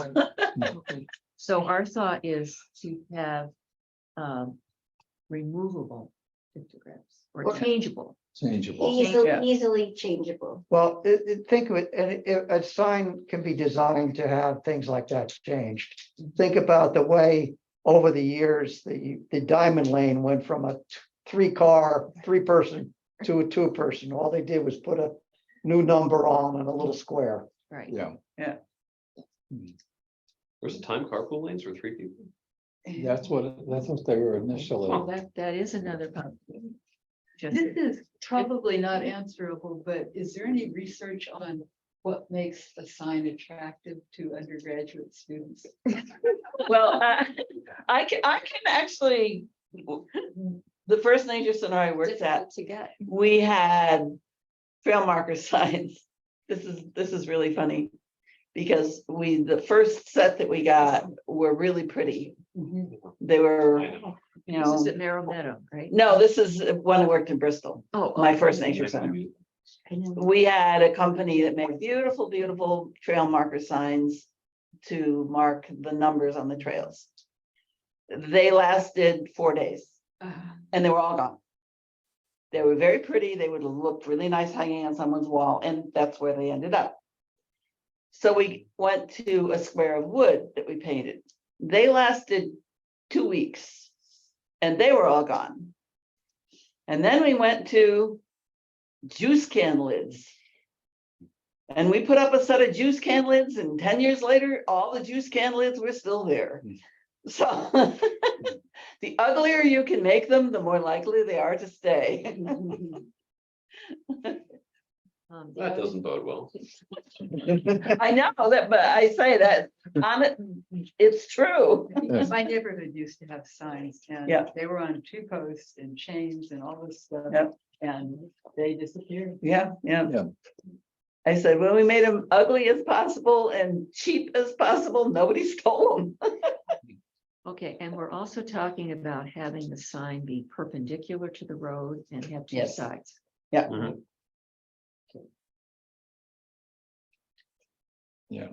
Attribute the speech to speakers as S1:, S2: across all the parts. S1: Okay. So our thought is to have um removable pictographs or
S2: Okay.
S1: changeable.
S3: changeable.
S2: Easily,
S1: Yeah.
S2: easily changeable.
S4: Well, it, it- think of it, and it- a sign can be designed to have things like that changed. Think about the way over the years, the, the diamond lane went from a t- three car, three person to a two person. All they did was put a new number on and a little square.
S1: Right.
S3: Yeah.
S5: Was it time carpool lanes for three people?
S3: That's what, that's what they were
S1: Well,
S3: initially.
S1: that that is another. pub- Just
S6: This is probably not answerable, but is there any research on what makes a sign attractive to undergraduate students?
S7: Well, I, I can, I can actually, the first nature center I worked
S1: difficult
S7: at,
S1: to get.
S7: we had um, trail marker signs. This is, this is really funny. Because we, the first set that we got were really pretty. They were,
S5: I know.
S7: you
S1: This is
S7: know,
S1: at Merrill Meadow, right?
S7: no, this is when I worked in Bristol,
S1: Oh,
S7: my
S1: oh,
S7: first nature center. we had a company that made beautiful, beautiful trail marker signs to mark the numbers on the trails. They lasted four days
S6: Ah,
S7: and they were all gone. They were very pretty. They would look really nice hanging on someone's wall, and that's where they ended up. So we went to a square of wood that we painted. They lasted two weeks and they were all gone. And then we went to juice can lids. And we put up a set of juice can lids, and ten years later, all the juice can lids were still there. So the uglier you can make them, the more likely they are to stay.
S1: um, the
S5: That
S1: other-
S5: doesn't bode well.
S7: I know that, but I say that on it, it's true.
S3: Yes.
S6: My neighborhood used to have signs and
S7: Yeah.
S6: they were on two posts and chains and all this stuff.
S7: Yep.
S6: And they disappeared.
S7: Yeah, yeah.
S3: Yeah.
S7: I said, when we made them ugly as possible and cheap as possible, nobody stole them.
S1: Okay, and we're also talking about having the sign be perpendicular to the road and have two
S7: Yes.
S1: sides.
S7: Yeah.
S5: Mhm.
S3: Yeah.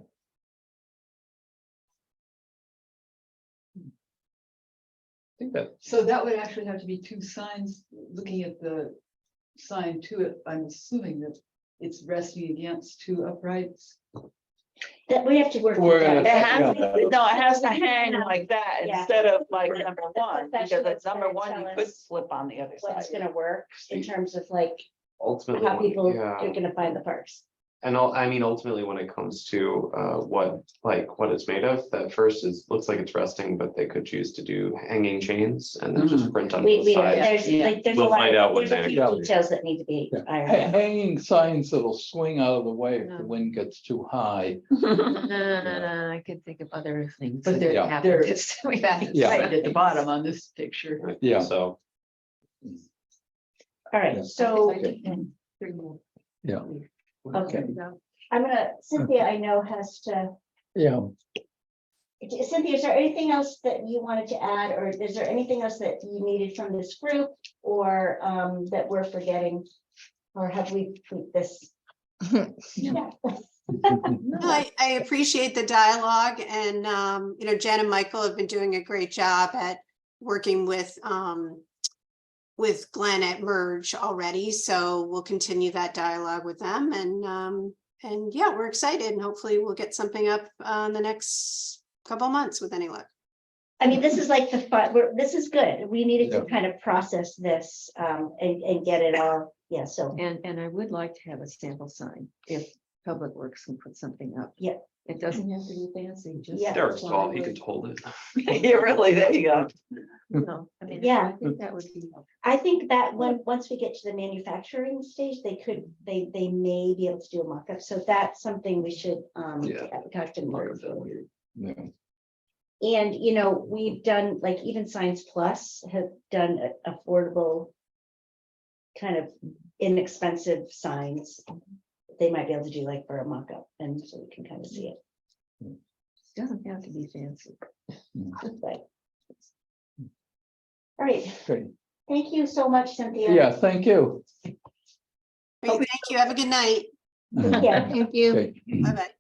S5: I think that,
S6: So that would actually have to be two signs, looking at the sign to it, I'm assuming that it's resting against two uprights.
S2: That we have to work.
S3: We're
S2: with that.
S3: gonna-
S7: It has, to- no, it has to hang like that
S2: Yeah.
S7: instead of like number one, because
S2: professionals
S7: at number
S2: gonna
S7: one, you
S2: tell
S7: could
S2: us
S7: slip on the other side.
S2: What's gonna work in terms of like how
S5: ultimately,
S2: people
S5: yeah.
S2: are gonna find the parks.
S5: And all, I mean, ultimately, when it comes to uh what, like, what it's made of, that first is, looks like it's resting, but they could choose to do hanging chains and then just print on
S2: Mm. We,
S5: the
S2: we, don't-
S5: side.
S2: there's
S7: Yeah.
S2: like, there's a
S5: We'll
S2: lot,
S5: find out
S2: of-
S5: what
S2: there's a
S5: they-
S2: few details that need to be
S3: Yeah. Ha-
S2: ironed out.
S3: Hanging signs that'll swing out of the way if the
S1: Yeah.
S3: wind gets too high.
S1: No, no, no, no, I could think of other things.
S6: But
S1: that
S6: they're-
S1: happened.
S6: There is, we have it
S3: Yeah.
S6: right at the bottom on this picture.
S5: Right,
S3: Yeah.
S5: So.
S2: All
S3: Yeah.
S2: right, so.
S1: Three more.
S3: Yeah.
S2: Okay. I'm gonna, Cynthia, I know has to,
S3: Yeah.
S2: Cynthia, is there anything else that you wanted to add, or is there anything else that you needed from this group? Or um, that we're forgetting, or have we tweaked this? Yeah.
S8: No, I, I appreciate the dialogue and, um, you know, Jen and Michael have been doing a great job at working with, um, with Glenn at Merge already, so we'll continue that dialogue with them and, um, and yeah, we're excited and hopefully we'll get something up uh, in the next couple months with any luck.
S2: I mean, this is like the fun, we're, this is good. We needed to kind of process this um, and, and get it all, yeah, so.
S1: And, and I would like to have a sample sign if Public Works can put something up.
S2: Yeah.
S1: It doesn't have to be fancy, just.
S2: Yeah.
S5: Derek's fault, he
S1: plywood,
S5: could hold it.
S7: Yeah, really, there you go.
S1: you know, I mean,
S2: Yeah.
S1: I think that would be helpful.
S2: I think that when, once we get to the manufacturing stage, they could, they, they may be able to do a mock-up, so that's something we should um,
S5: Yeah.
S2: talk to Mark about.
S3: Yeah.
S2: And, you know, we've done, like even Science Plus have done a- affordable, kind of inexpensive signs. They might be able to do like for a mock-up, and so we can kind of see it,
S1: Doesn't have to be fancy.
S2: but. All right,
S3: Great.
S2: thank you so much, Cynthia.
S3: Yeah, thank you.
S8: Great, Thank you. Have a good night.
S2: Yeah.
S8: Bye-bye.